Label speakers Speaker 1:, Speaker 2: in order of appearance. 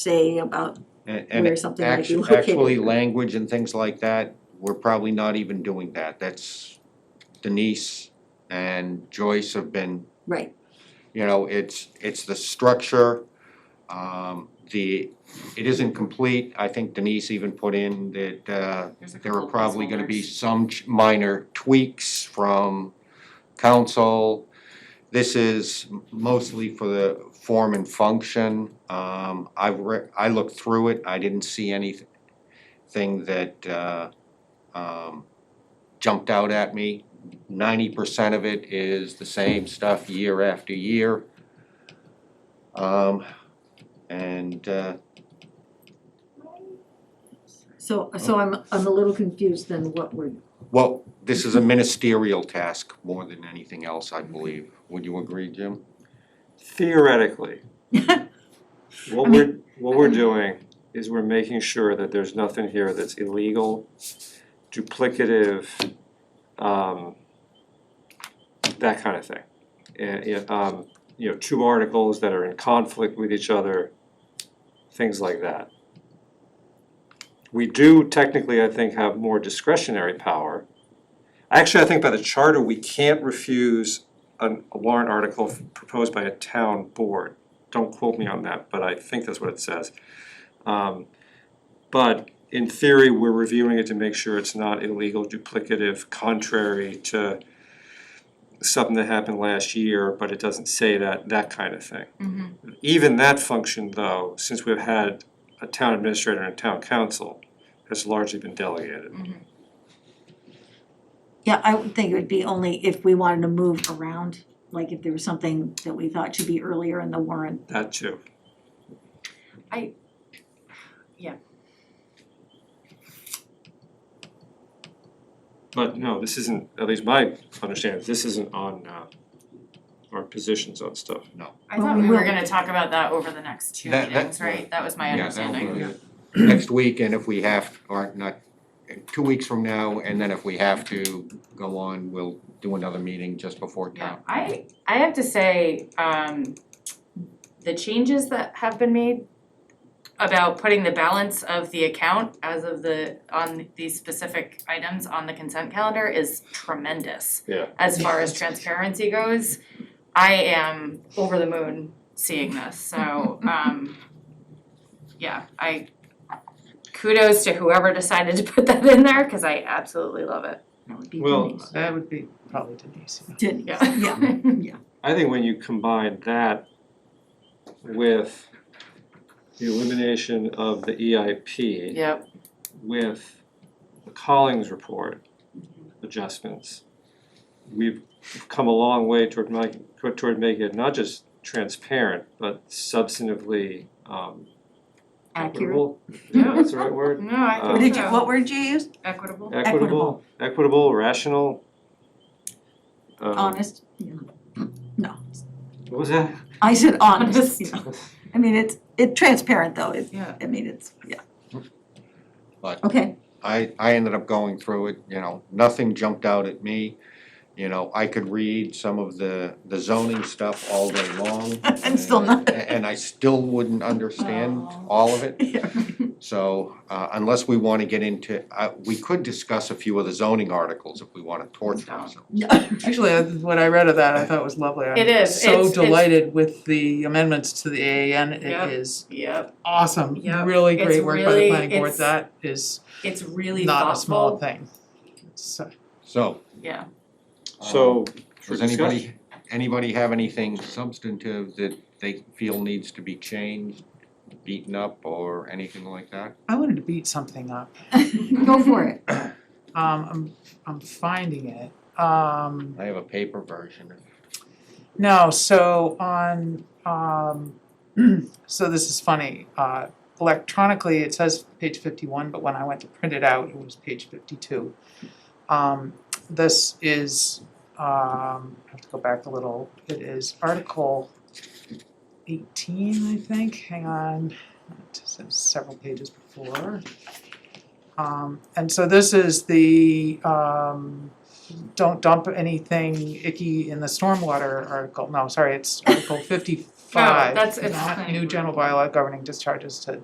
Speaker 1: say about
Speaker 2: And
Speaker 1: where
Speaker 2: and
Speaker 1: something might be
Speaker 2: actu-
Speaker 1: located.
Speaker 2: actually, language and things like that, we're probably not even doing that, that's Denise and Joyce have been,
Speaker 1: Right,
Speaker 2: you know, it's it's the structure. Um the, it isn't complete, I think Denise even put in that uh
Speaker 3: There's a
Speaker 2: there are
Speaker 3: couple
Speaker 2: probably gonna be
Speaker 3: placeholders.
Speaker 2: some ch- minor tweaks from council. This is mostly for the form and function. Um, I've re- I looked through it, I didn't see anything that, uh, um, jumped out at me. Ninety percent of it is the same stuff year after year. Um, and, uh,
Speaker 1: so so I'm I'm a little confused then what we're,
Speaker 2: Well, this is a ministerial task more than anything else, I believe. Would you agree, Jim?
Speaker 4: Theoretically,
Speaker 1: I
Speaker 4: what
Speaker 1: mean-
Speaker 4: we're, what we're doing is we're making sure that there's nothing here that's illegal, duplicative, um, that kind of thing. And, yeah, um, you know, two articles that are in conflict with each other, things like that. We do technically, I think, have more discretionary power. Actually, I think by the charter, we can't refuse an- a warrant article proposed by a town board. Don't quote me on that, but I think that's what it says. Um, But in theory, we're reviewing it to make sure it's not illegal, duplicative, contrary to something that happened last year, but it doesn't say that, that kind of thing.
Speaker 3: Mhm.
Speaker 4: Even that function, though, since we've had a town administrator and a town council, has largely been delegated.
Speaker 1: yeah, I would think it would be only if we wanted to move around, like if there was something that we thought should be earlier in the warrant.
Speaker 4: That too.
Speaker 3: Yeah.
Speaker 4: But no, this isn't, at least my understanding, this isn't on uh our positions on stuff.
Speaker 3: I
Speaker 1: Well,
Speaker 3: thought
Speaker 1: we
Speaker 3: we were
Speaker 1: will.
Speaker 3: gonna talk about that over the next two
Speaker 2: That- that-
Speaker 3: meetings, right? That was my
Speaker 2: Yeah, that'll
Speaker 3: understanding.
Speaker 2: be Next week, and if we have, or not, two weeks from now, and then if we have to go on, we'll do another meeting just before
Speaker 3: Yeah,
Speaker 2: town.
Speaker 3: I, I have to say, um, the changes that have been made about putting the balance of the account as of the, on these specific items on the consent calendar is tremendous.
Speaker 4: Yeah.
Speaker 3: As far as transparency goes, I am over the moon seeing this, so, um, yeah, I, kudos to whoever decided to put that in there, cause I absolutely love it,
Speaker 1: That would be
Speaker 4: Well,
Speaker 1: Denise.
Speaker 5: That would be probably Denise, yeah.
Speaker 1: Denise,
Speaker 3: yeah.
Speaker 1: yeah,
Speaker 4: I think when you combine that with the elimination of the E EIP
Speaker 3: Yep.
Speaker 4: with the Collings report adjustments, we've come a long way toward making, toward making it not just transparent, but substantively um
Speaker 1: accurate,
Speaker 4: equitable. Yeah, that's the right word.
Speaker 3: No, I
Speaker 4: What
Speaker 3: think
Speaker 4: Um,
Speaker 6: What did you,
Speaker 3: so.
Speaker 6: what word did you use?
Speaker 3: Equitable.
Speaker 4: Equitable, equitable, rational.
Speaker 2: uh,
Speaker 4: um,
Speaker 1: honest, yeah. No,
Speaker 4: What was that?
Speaker 1: I said honest, you know, I mean, it's it transparent though, it,
Speaker 3: Yeah.
Speaker 1: I mean, it's, yeah.
Speaker 2: But-
Speaker 1: Okay,
Speaker 2: I, I ended up going through it, you know, nothing jumped out at me. You know, I could read some of the, the zoning stuff all day long.
Speaker 1: And still not-
Speaker 2: and- And I still wouldn't understand
Speaker 3: Oh.
Speaker 2: all of it.
Speaker 1: yeah,
Speaker 2: So uh unless we wanna get into, uh we could discuss a few of the zoning articles if we wanna torture ourselves.
Speaker 5: Actually, I- when I read of that, I thought it was lovely.
Speaker 3: It is.
Speaker 5: I'm
Speaker 3: It's-
Speaker 5: so
Speaker 3: it's-
Speaker 5: delighted with the amendments to the AAN,
Speaker 3: Yeah.
Speaker 5: it is
Speaker 3: Yep.
Speaker 5: awesome,
Speaker 3: Yeah.
Speaker 5: really
Speaker 3: It's
Speaker 5: great work by the
Speaker 3: really-
Speaker 5: planning board,
Speaker 3: it's
Speaker 5: that is
Speaker 3: It's really
Speaker 5: not a small
Speaker 3: thoughtful.
Speaker 5: thing. So-
Speaker 2: So.
Speaker 3: Yeah.
Speaker 2: um,
Speaker 4: So, for
Speaker 2: Does
Speaker 4: discussion,
Speaker 2: anybody, anybody have anything substantive that they feel needs to be changed, beaten up or anything like that?
Speaker 5: I wanted to beat something up,
Speaker 1: go for it.
Speaker 5: um, I'm, I'm finding it, um.
Speaker 2: I have a paper version.
Speaker 5: No, so on, um, so this is funny, uh, electronically, it says page fifty-one, but when I went to print it out, it was page fifty-two. Um, this is, um, I have to go back a little, it is article eighteen, I think, hang on, it's several pages before. Um, and so this is the, um, don't dump anything icky in the stormwater article, no, sorry, it's article fifty five,
Speaker 3: that's- it's
Speaker 5: not
Speaker 3: planning
Speaker 5: new
Speaker 3: board.
Speaker 5: general bylaw governing discharges to